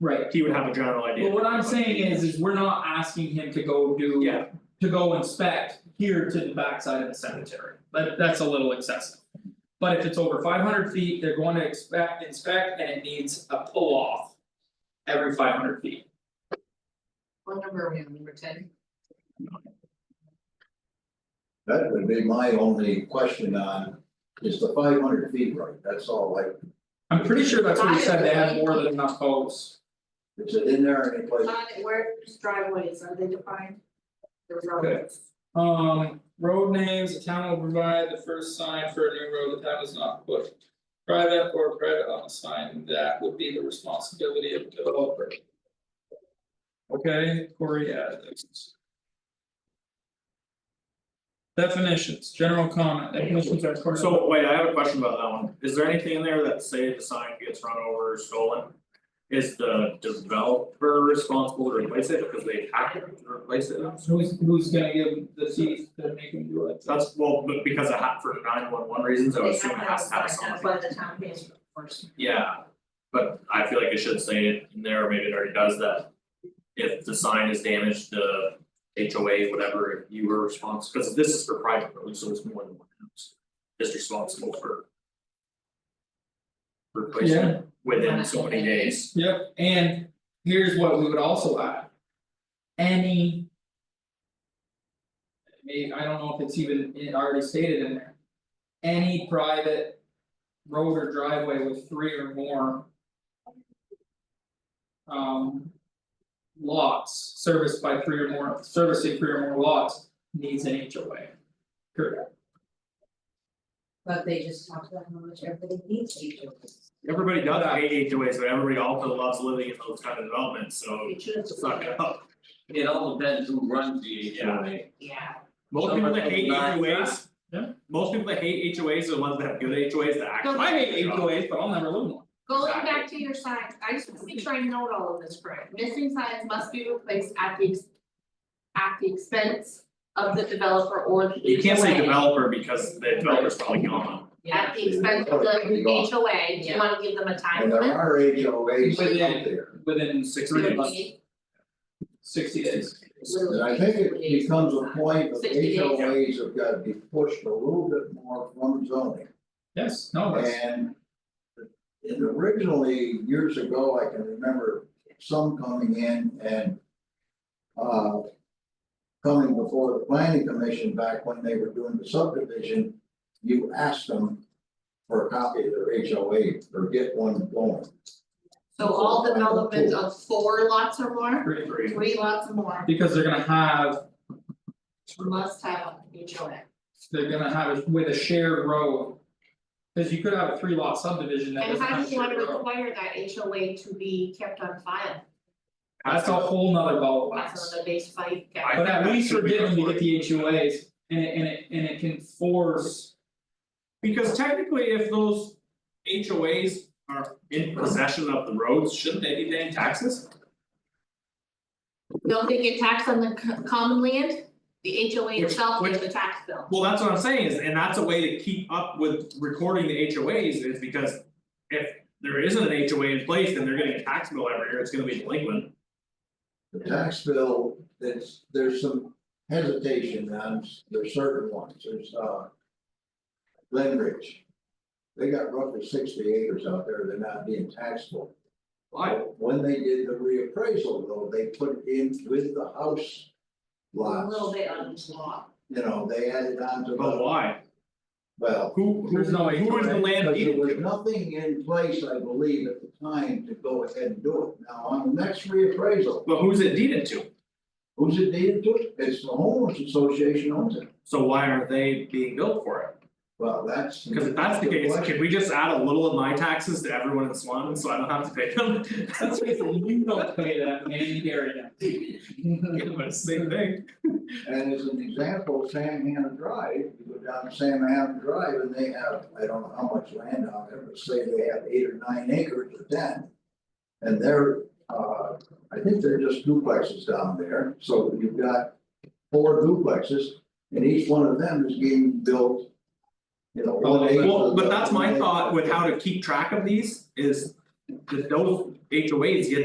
right, he would have a general idea. but what I'm saying is, is we're not asking him to go do. Yeah. To go inspect here to the backside of the cemetery, but that's a little excessive. But if it's over five hundred feet, they're going to expect, inspect, and it needs a pull off. Every five hundred feet, What number are we on, number ten? That would be my only question on, is the five hundred feet right, that's all, like, I'm pretty sure that's what he said, they had more than enough posts. is it in there any Uh, place? where's driveways, are they defined? The roads. Um, road names, the town will provide the first sign for a new road, the town does not put. Private or private on the sign, that would be the responsibility of the developer. Okay, Corey added this. Definitions, general comment, definitions are part of- So wait, I have a question about that one, is there anything in there that say the sign gets run over or stolen? Is the developer responsible to replace it because they have to replace it? Who's who's gonna give the teeth to make him do it? That's well, but because it had for nine one one reasons, I would assume it has to have They something. have to have signs, that's why the town pays for enforcement. Yeah, but I feel like it should say it in there, or maybe it already does that. If the sign is damaged, the HOA, whatever, you were responsible, because this is for private roads, so it's more than one house. Is responsible for. Replacement within so many days, Yep, and here's what we would also add. Any. Maybe, I don't know if it's even it already stated in there. Any private. Road or driveway with three or more. Um. Lots serviced by three or more, servicing three or more lots needs an HOA. Correct, But they just talk about how much everybody needs to do. everybody does hate HOAs, but everybody also loves living in those kind of developments, so We should- Oh, it's not gonna help. It all depends who runs the Yeah. HOA. Yeah, Most people that hate Someone will not- HOAs. Yeah. Most people that hate HOAs are the ones that have good HOAs that actually. I hate HOAs, but I'll never live in one. going back to your signs, I just wanna make sure I note all of this correct, missing signs must be replaced at the. ex- At the expense of the developer or the. You can't say HOA. developer because the developer's probably gone. At the expense of the HOA, do you wanna give them a time And there limit? are HOAs But yeah. out there, Within sixty Three days, sixty days. and I think it becomes a point of 60 days. HOAs have got to be pushed a little bit more from zoning. Yes, no, that's. And and originally, years ago, I can remember some coming in and uh coming before the planning commission back when they were doing the subdivision, you asked them for a copy of their HOA or get one going. So all development of four lots or more, Great, great. three lots or more, Because they're gonna have, must have an HOA. they're gonna have it with a shared road. Cause you could have a three lot subdivision that And doesn't how have a do you wanna shared road, require that HOA to be kept on file, that's a whole nother ball of that's wax. another base fight, yeah. I But think at that least should be we're getting to get recorded. the HOAs and it and it and it can force, Because technically, if those HOAs are in possession of the roads, shouldn't they be paying taxes? Don't they get taxed on the co- common land, the HOA Which- itself which- is the tax bill. Well, that's what I'm saying is, and that's a way to keep up with recording the HOAs is because. If there isn't an HOA in place, then they're getting a tax bill every year, it's gonna be delinquent. The tax bill, there's there's some hesitation on, there's certain ones, there's uh. Glen Ridge. They got roughly sixty acres out there, they're not being taxed for. Why? When they did the reappraisal though, they put it in with the house A little lots, bit on each lot. you know, they added on to But the, why? well. Who who There's no who is the HOA, land Because there deed was to? nothing in place, I believe, at the time to go ahead and do it. Now, on the next reappraisal, But who's it deeded to? who's it deeded to? It's the homeowners association owns it. So why aren't they being billed for it? Well, that's. Cause if that's the case, could we just add a little of my taxes to everyone in Swan, so I don't have to pay them? that's basically, you don't pay that man, you carry Yeah, that. but it's the same thing. And as an example, Sam Hannah Drive, you go down to Sam Hannah Drive and they have, I don't know how much land out there, but say they have eight or nine acres or ten. And they're, uh, I think they're just duplexes down there, so you've got four duplexes and each one of them is being built. You know, one acre. Oh, Well, but that's my thought with how to keep track of these is that those HOAs get